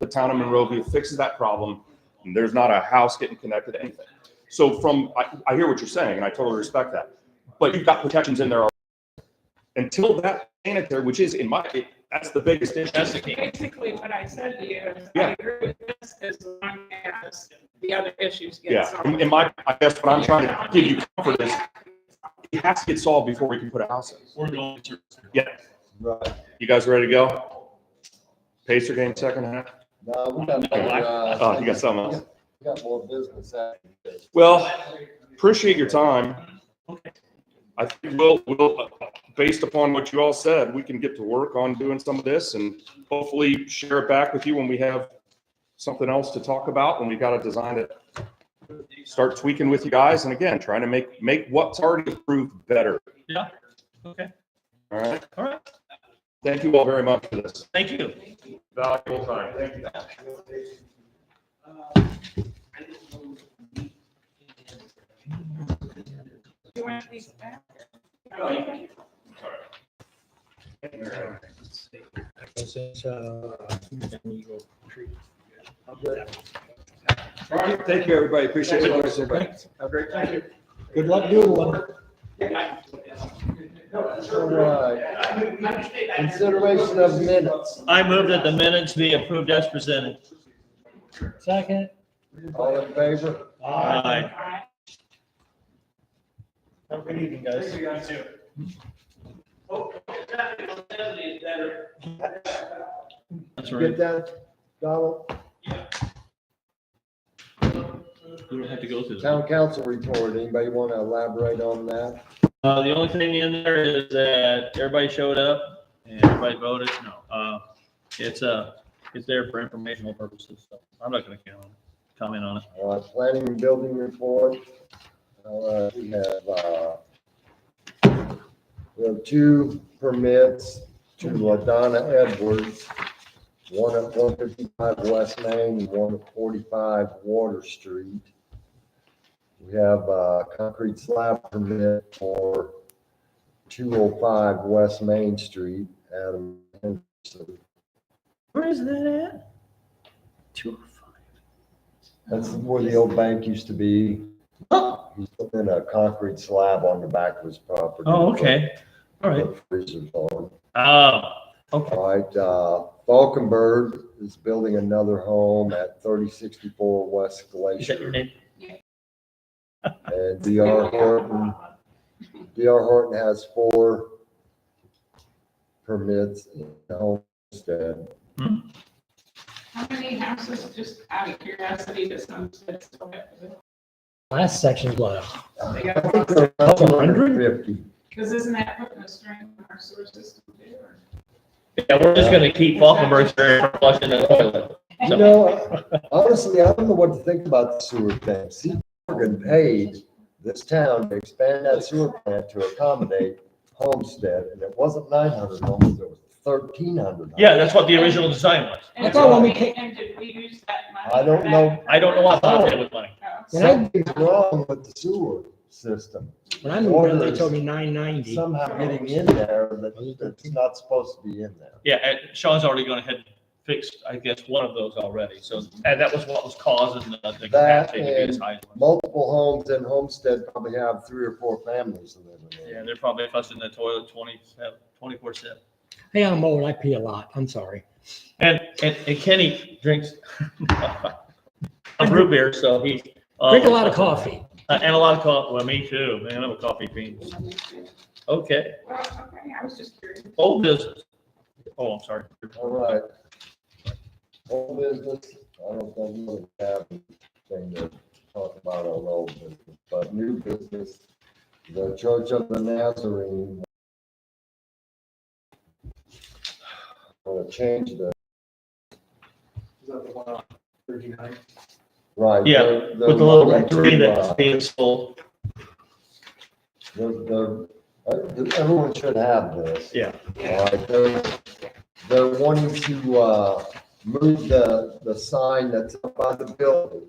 the town of Monrovia fixes that problem. and There's not a house getting connected to anything. So from, I, I hear what you're saying and I totally respect that, but you've got protections in there. already. Until that sanitary, which is in my, that's the biggest issue. That's the key. Basically, what I said to you is, Yeah. I agree with this as long as the other issues get Yeah, solved. in in my, I guess what I'm trying to give you comfort is it has to get solved before we can put a house in. We're going to. Yeah, Right. you guys ready to go? Pacer game second half? No, we got. another, uh, Oh, you got something else? We got more business after this. Well, appreciate your time. I think we'll, we'll, based upon what you all said, we can get to work on doing some of this and hopefully share it back with you when we have something else to talk about, when we got to design it. Start tweaking with you guys and again, trying to make, make what's already approved better. Yeah, okay, All right. all right, Thank you all very much for this. thank you. Valuable time. Thank you. Do you want these back? ah, Thank you, everybody. Appreciate it. Thanks, everybody. Have a great time. Good luck doing one. All right. uh, Consideration of minutes. I move that the minutes be approved as presented. Second. All in favor? Aye. Aye. Have a good evening, guys. That's Get right, that, Donald? we don't have to go through. that. Town council report. Anybody want to elaborate on that? Uh, the only thing in there is that everybody showed up and everybody voted, no, uh, it's, uh, it's there for informational purposes, so I'm not gonna count, comment on it. Uh, planning and building report. Uh, we have, uh, we have two permits to LaDonna Edwards, one at one fifty-five West Main and one at forty-five Water Street. We have a concrete slab permit for two oh five West Main Street, Adam Henderson. Where is that at? Two oh five. That's where the old bank used to be. Oh. He's putting a concrete slab on the back of his property. Oh, okay, all right, Put Freezers on. oh, okay, All right, uh, Falkenberg is building another home at thirty sixty-four West is that your Glacier. name? And DR Horton, DR Horton has four permits in the homestead. How many houses, just out of curiosity, does Homestead still have? Last section's left. They I got think lost, they're around Couple hundred? 150. because isn't that putting a strain on our sewer system too? or- Yeah, we're just gonna keep Falkenberg there and flushing the toilet. You know, honestly, I don't know what to think about the sewer thing. See, Morgan paid this town to expand that sewer plant to accommodate Homestead, and it wasn't nine hundred homes, it was thirteen hundred. Yeah, that's what the original design was. And thought when we did we- And did we use that money? I don't for that? know. I don't know why I thought that was money. Oh, so Something's wrong with the sewer system. When I moved in, they told me nine ninety. Somehow getting in there that it's not supposed to be in there. Yeah, and Sean's already gone ahead and fixed, I guess, one of those already, so, and that was what was causing the the capacity to be as high. as it was. Multiple homes in Homestead probably have three or four families living in Yeah, there. they're probably flushing the toilet twenty, twenty-four seven. Hey, I'm old. I pee a lot. I'm sorry. And, and, and Kenny drinks a root beer, so he. uh, Drink a lot of coffee. And a lot of coffee, well, me too, man, I'm a coffee fiend. Okay, Oh, Well, okay, I was just curious. old business. Oh, I'm sorry. All right. Old business, I don't think we really have anything to talk about on old business, but new business, the Church of the Nazarene. Want to change the, right. Yeah, they're- they're With the little wanting to, tree uh, that's being sold, they're- they're- uh, Everyone should have this. yeah. All right, they're, they're wanting to, uh, move the, the sign that's up by the building.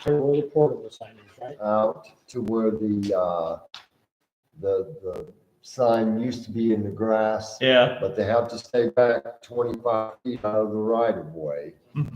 Turn all the portable signage, right? out to where the, uh, the, the sign used to be in the grass, Yeah, but they have to stay back twenty-five feet out of the right of way.